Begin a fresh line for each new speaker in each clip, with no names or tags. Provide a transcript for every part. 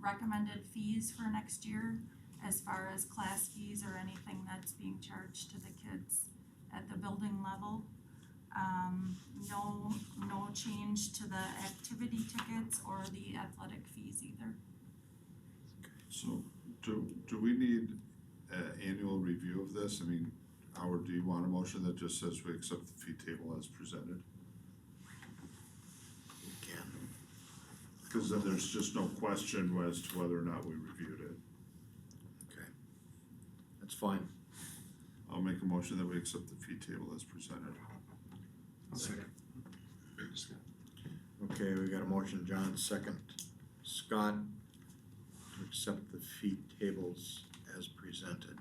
recommended fees for next year as far as class fees or anything that's being charged to the kids at the building level. Um, no, no change to the activity tickets or the athletic fees either.
So do, do we need an annual review of this? I mean, Howard, do you want a motion that just says we accept the fee table as presented?
Can.
Cause then there's just no question as to whether or not we reviewed it.
Okay. That's fine.
I'll make a motion that we accept the fee table as presented.
Second.
Okay, we got a motion, John, second. Scott, to accept the fee tables as presented.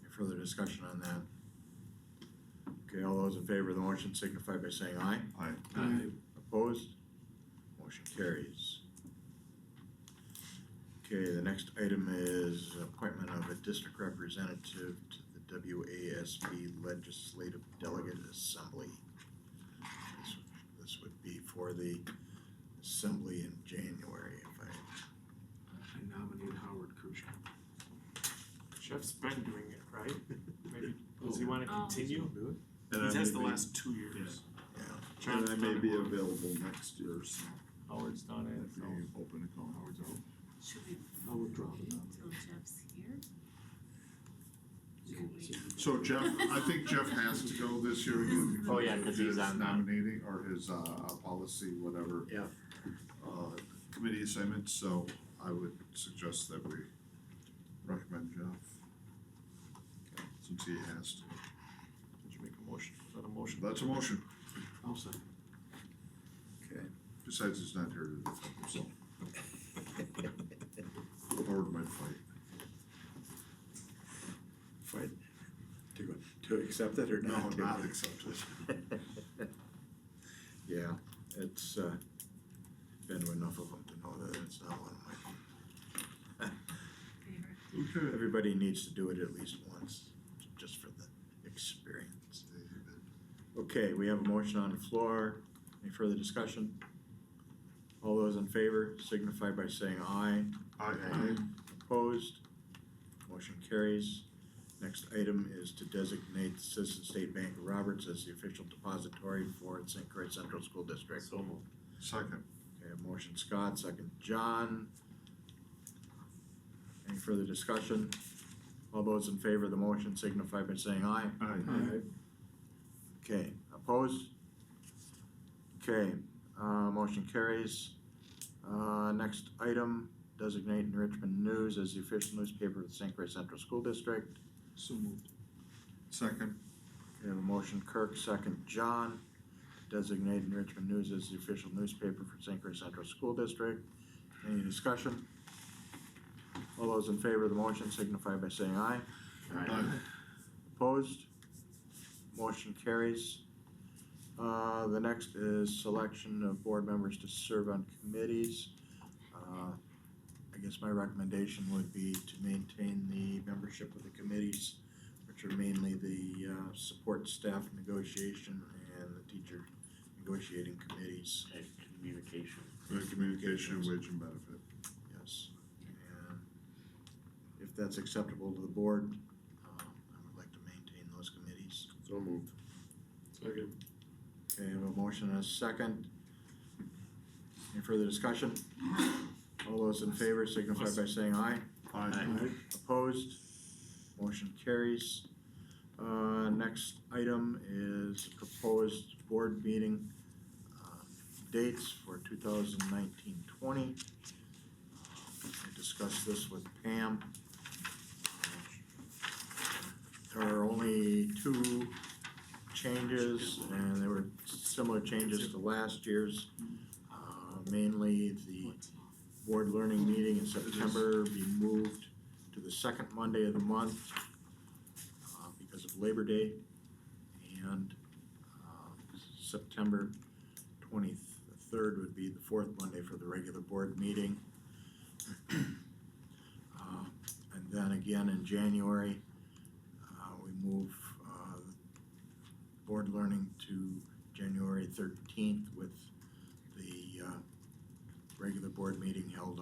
Any further discussion on that? Okay, all those in favor of the motion signify by saying aye.
Aye.
Opposed? Motion carries. Okay, the next item is appointment of a district representative to the WASB Legislative Delegate Assembly. This- This would be for the assembly in January, if I,
I nominate Howard Kruschka. Jeff's been doing it, right? Maybe, does he wanna
Oh.
continue?
And I
He's asked the
may be-
last two years.
yeah.
And
John's
I may
done it
be
once.
available next year, so
Howard's done it,
if
so.
you open a call.
Howard's out.
Should we
I'll withdraw
wait
Um,
until Jeff's here? Should we-
So Jeff, I think Jeff has to go this year. again
Oh, yeah, 'cause he's
because
on the-
Nominating or his uh policy, whatever.
Yeah.
Uh committee assignment, so I would suggest that we recommend Jeff. Since he has to.
Did you make a motion?
Is that a motion?
That's a motion,
I'll second.
Okay.
besides he's not here to defend himself. Howard might fight.
Fine. To, to accept it or
No,
not? to-
not accepted.
Yeah, it's, uh, been to enough of them to know that it's not one of my
Favorite.
Okay.
Everybody needs to do it at least once, just for the experience. Okay, we have a motion on the floor. Any further discussion? All those in favor signify by saying aye.
Aye.
Opposed? Motion carries. Next item is to designate Citizen State Bank of Roberts as the official depository for St. Croix Central School District.
So moved.
Second,
Okay, motion Scott, second John. Any further discussion? All those in favor of the motion signify by saying aye.
aye.
Okay, opposed? Okay, uh, motion carries. Uh, next item, designate Richmond News as the official newspaper of the St. Croix Central School District.
So moved.
Second,
We have a motion Kirk, second John. Designate Richmond News as the official newspaper for St. Croix Central School District. Any discussion? All those in favor of the motion signify by saying aye.
aye.
Opposed? Motion carries. Uh, the next is selection of board members to serve on committees. Uh, I guess my recommendation would be to maintain the membership of the committees, which are mainly the, uh, support staff negotiation and the teacher negotiating committees,
And communication.
Uh, Communication, wage and benefit.
yes. And if that's acceptable to the board, um, I would like to maintain those committees.
So moved.
Second.
Okay, I have a motion and a second. Any further discussion? All those in favor signify by saying aye.
Aye.
Opposed? Motion carries. Uh, next item is proposed board meeting, uh, dates for 2019-20. I discussed this with Pam. There are only two changes, and they were similar changes to last year's. Uh, mainly the board learning meeting in September be moved to the second Monday of the month uh, because of Labor Day. And uh, September twenty-third would be the fourth Monday for the regular board meeting. Uh, And then again in January, uh, we move uh, board learning to January thirteenth with the uh, regular board meeting held